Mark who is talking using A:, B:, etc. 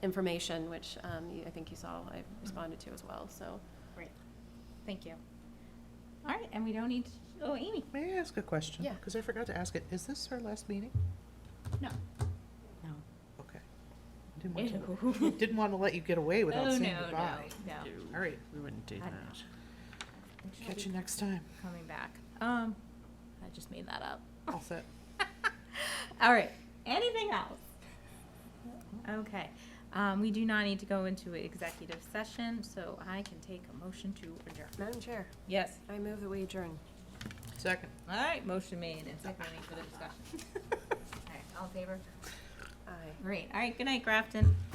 A: information, which um, you- I think you saw I responded to as well, so.
B: Great, thank you. All right, and we don't need, oh, Amy?
C: May I ask a question?
A: Yeah.
C: Because I forgot to ask it. Is this our last meeting?
B: No.
D: No.
C: Okay. Didn't want to, didn't want to let you get away without
B: Oh,
C: saying
B: no,
C: goodbye.
B: No, no.
C: All right,
D: We wouldn't do
B: I
D: that.
B: know. She'll
C: catch
B: be
C: you next time.
B: Coming back. Um, I just made that up.
C: All set.
B: All right, anything else? Okay, um, we do not need to go into executive session, so I can take a motion to adjourn.
A: Madam Chair,
B: Yes.
A: I move that we adjourn.
C: Second.
B: All right, motion made and seconded for the discussion. All right, all in favor?
A: Aye.
B: Great, all right, good night, Grafton.